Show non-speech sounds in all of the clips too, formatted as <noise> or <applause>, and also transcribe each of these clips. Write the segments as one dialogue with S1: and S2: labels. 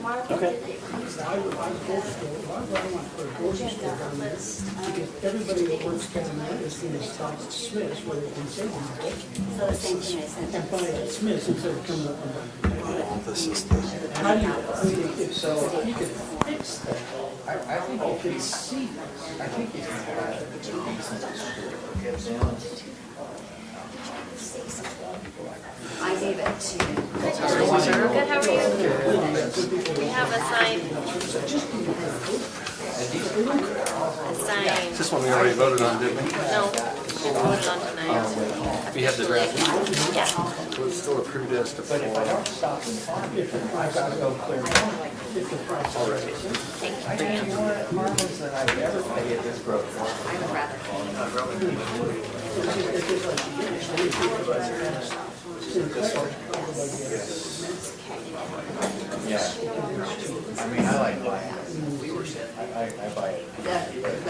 S1: Mark did
S2: Okay.
S1: it when he was talking about the
S3: My brother went for a grocery store
S1: agenda,
S3: down
S1: but
S3: there.
S1: it's,
S3: Because
S1: um,
S3: everybody that works down there is going to stop at Smith's where they can save them.
S1: so the same thing I sent.
S3: And buy at Smith's instead of coming up and buying.
S4: This is the,
S3: How do you, I mean, if so, if you could fix that.
S5: I, I think you can see, I think you can have a reasonable score for kids.
S1: I gave it to,
S6: Good, how are you? We have a sign. A sign,
S4: this one we already voted on, didn't we?
S6: no, we voted on tonight.
S4: We have the draft,
S6: Yeah,
S4: it was still approved as to
S5: But if I
S4: form.
S5: don't stop and farm it, I've got to go clear. I think you want marbles that I've ever played at this grove.
S1: I would rather.
S5: Yeah. I mean, I like buying it. I, I- I buy it.
S1: The,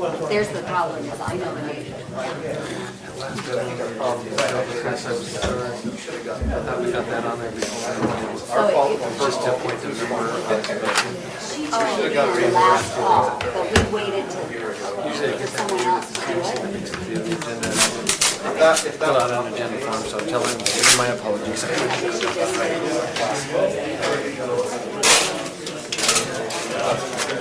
S1: well, there's the problem, is I don't know.
S4: We got that on there before.
S1: So it- Oh, it
S4: First tip point to remember.
S1: She told me the last call, but we waited to, for someone else to do it.
S4: Fill out an agenda form, so tell him, give him my apologies.
S1: I think she just did it.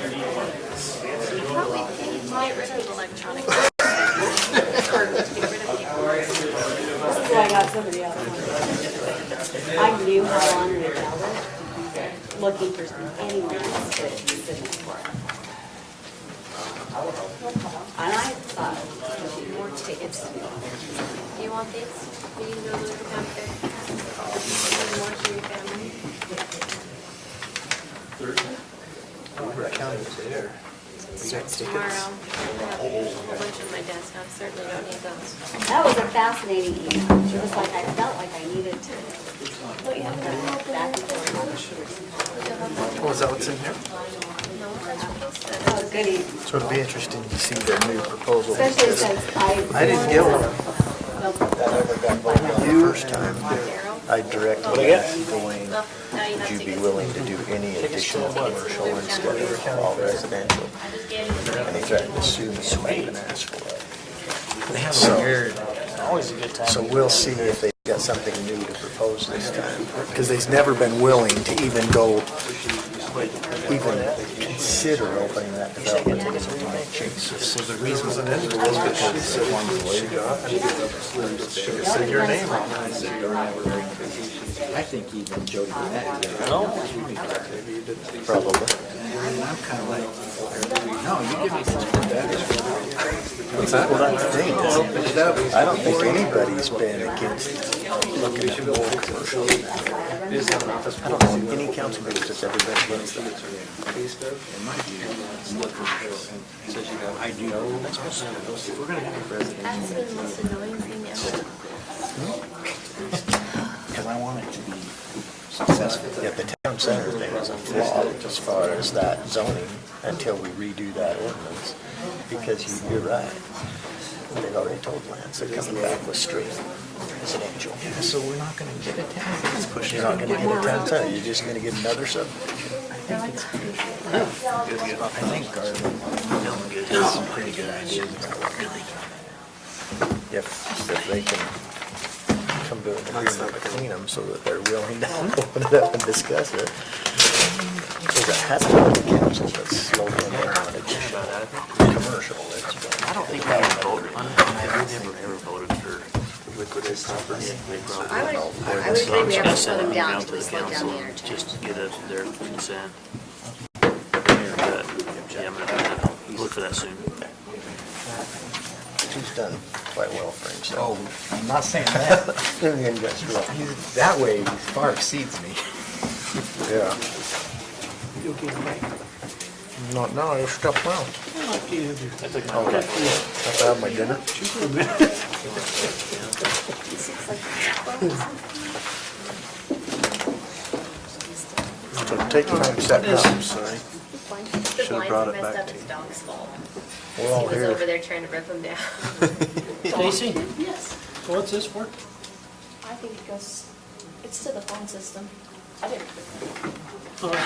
S6: I thought we get rid of electronic. <laughs> Or get rid of paper.
S1: So I got somebody else. on it. I knew how honored it was, looking for anyone else to submit for it. And I thought, it would be more tickets than
S6: Do you want these? Will you go look them up there? Send more to your family. Tomorrow, I have a bunch on my desk, I certainly don't need those.
S1: That was a fascinating email. It was like, I felt like I needed to. Don't you have that back and forth?
S4: Well, is that what's in here?
S6: No, that's your case then.
S1: Oh, goody.
S4: So it'll be interesting to see the new proposal.
S1: Especially since I.
S4: I didn't get one.
S1: one.
S7: You, I
S6: What do
S7: directly
S6: you
S7: asked Dwayne,
S6: Well, now you have
S7: would
S6: to
S7: you be
S6: get-
S7: willing to do any additional commercial instead of all residential?
S6: I just gave you the-
S7: And he threatened to sue me if I even asked for it.
S2: They have
S7: So-
S2: a weird, always a good time.
S7: So
S2: to
S7: we'll see if they've got something new to propose this time, because they've never been willing to even go, even consider opening that development.
S4: Was the reason was because it wanted to waive
S1: Said your name wrong.
S5: I think even Jody Burnett did.
S7: Probably.
S5: And I'm kind of like, no, you give me something better.
S7: Well, that's the thing. I don't think anybody's been against looking at more commercial. I don't know any council member that's ever been against that.
S6: That's been the most annoying thing ever.
S5: Because I want it to be successful.
S7: Yeah, the town center thing is a flaw as far as that zoning until we redo that ordinance. Because you- you're right. They've already told Lance they're coming back with street residential.
S5: So we're not going to get it down. It's pushing
S7: You're not gonna get a town center, you're just gonna get another sub.
S5: I think Garland, Dylan gives us some pretty good ideas about what really.
S7: If, if they can come to an agreement between them so that they're
S5: <laughs>
S7: willing to <laughs> open it up and discuss it. Because it has to be the council that's slowly going on additional commercial. I don't think that would vote on it.
S1: I would, I would agree we have to slow them down until we slow down the interchange.
S8: just get a- their consent. But, Yeah, I'm gonna look for that soon.
S7: He's done quite well for himself.
S5: Oh, I'm not saying that.
S7: <laughs> In the industrial,
S5: He's, that way, he far exceeds me.
S7: <laughs> yeah.
S3: You'll get it back.
S7: Not now, I just got well.
S3: I like to have your-
S7: Have to have my dinner. So Take your time, set it up, sorry.
S6: The blinds are messed up, it's dog's fault.
S7: We're all
S6: He was over
S7: here.
S6: there trying to rip them down.
S7: <laughs>
S2: Stacy,
S9: Yes,
S3: What's this for?
S9: I think it goes, it's to the phone system. I didn't.